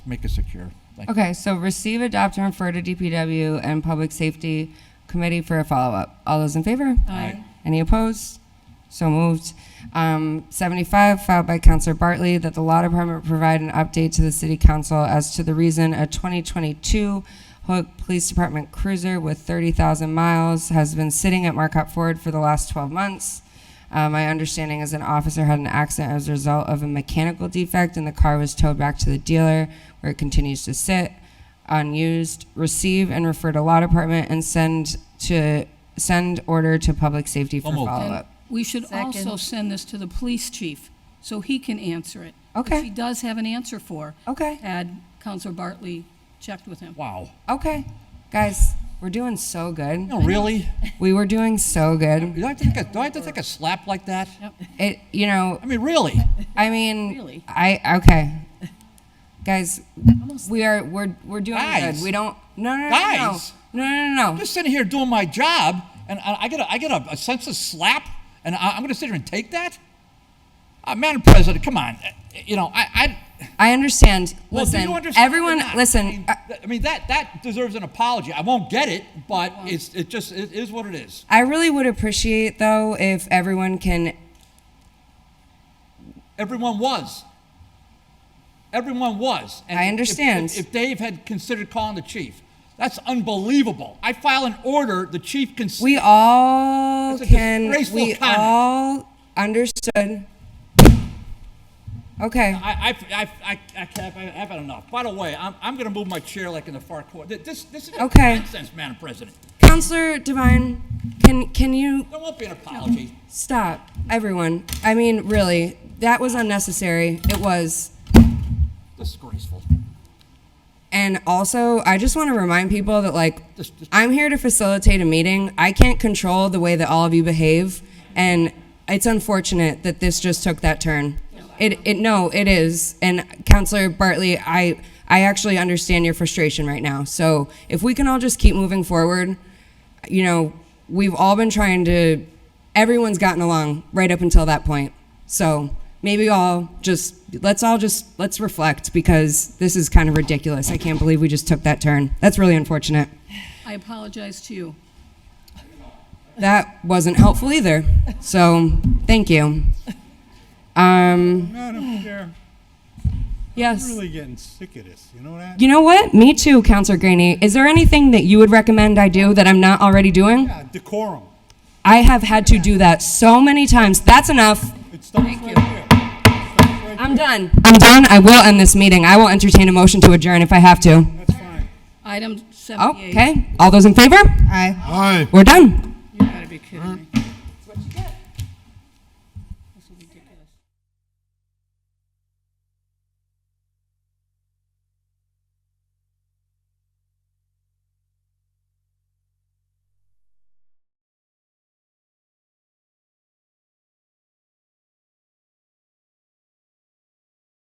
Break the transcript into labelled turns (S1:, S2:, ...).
S1: Make it secure. Thank you.
S2: Okay, so receive, adopt, and refer to DPW and Public Safety Committee for a follow-up. All those in favor?
S1: Aye.
S2: Any opposed? So moved. Um, 75, filed by Counselor Bartley, that the Law Department provide an update to the City Council as to the reason a 2022 Hoyok Police Department cruiser with 30,000 miles has been sitting at Marquette Ford for the last 12 months. Uh, my understanding is an officer had an accident as a result of a mechanical defect, and the car was towed back to the dealer, where it continues to sit unused, receive and refer to law department, and send to send order to public safety for
S1: So moved.
S2: follow
S3: And
S2: up.
S3: we should also
S4: Second.
S3: send this to the police chief, so he can answer it.
S2: Okay.
S3: Which he does have an answer for.
S2: Okay.
S3: Had Counselor Bartley checked with him.
S1: Wow.
S2: Okay, guys, we're doing so good.
S1: No, really?
S2: We were doing so good.
S1: Do I have to take a, do I have to take a slap like that?
S2: It, you know,
S1: I mean, really?
S2: I mean,
S3: Really?
S2: I okay, guys, we are we're we're doing
S1: Guys.
S2: good. We don't no no no
S1: Guys.
S2: no no no no.
S1: I'm
S2: no.
S1: just sitting here doing my job, and I, I get a, I get a, a sense of slap, and I, I'm going to sit here and take that? Uh, Madam President, come on. Uh, You know, I, I
S2: I understand.
S1: Well, do
S2: listen,
S1: you understand or
S2: everyone,
S1: not? I
S2: listen.
S1: mean,
S2: I-
S1: th- I mean, that, that deserves an apology. I won't get it, but it's, it just, it is what it is.
S2: I really would appreciate though if everyone can
S1: Everyone was. Everyone was. And
S2: I
S1: if- if-
S2: understand.
S1: If, if Dave had considered calling the chief, that's unbelievable. I file an order, the chief can.
S2: We all
S1: That's a
S2: can,
S1: disgraceful
S2: we
S1: comment.
S2: all understood. Okay,
S1: I, I, I, I, I, can't- I have had enough. By the way, I'm, I'm going to move my chair like in the far corner. Th- This, this is just
S2: Okay.
S1: nonsense, Madam President.
S2: Counselor Devine, can, can you
S1: There won't be an apology.
S2: stop, everyone? I mean, really, that was unnecessary, it was.
S1: Disgraceful.
S2: And also, I just want to remind people that, like,
S1: Just- just-
S2: I'm here to facilitate a meeting. I can't control the way that all of you behave, and it's unfortunate that this just took that turn. It, it, no, it is. And Counselor Bartley, I, I actually understand your frustration right now. So if we can all just keep moving forward, you know, we've all been trying to. Everyone's gotten along right up until that point. So maybe all just let's all just let's reflect because this is kind of ridiculous. I can't believe we just took that turn. That's really unfortunate.
S3: I apologize to you.
S2: That wasn't helpful either. So thank you. Um,
S5: Madam Chair, I'm
S2: yes.
S5: really getting sick of this, you know that?
S2: You know what? Me too, Counselor Graney. Is there anything that you would recommend I do that I'm not already doing?
S5: Yeah, decorum.
S2: I have had to do that so many times. That's enough.
S5: It stops right there. It stops right
S2: I'm done. I'm done. I will end this meeting. I will entertain a motion to adjourn if I have to.
S5: there. That's fine.
S3: Item seventy-eight.
S2: Okay. All those in favor? Aye. We're done.
S3: You gotta be kidding me.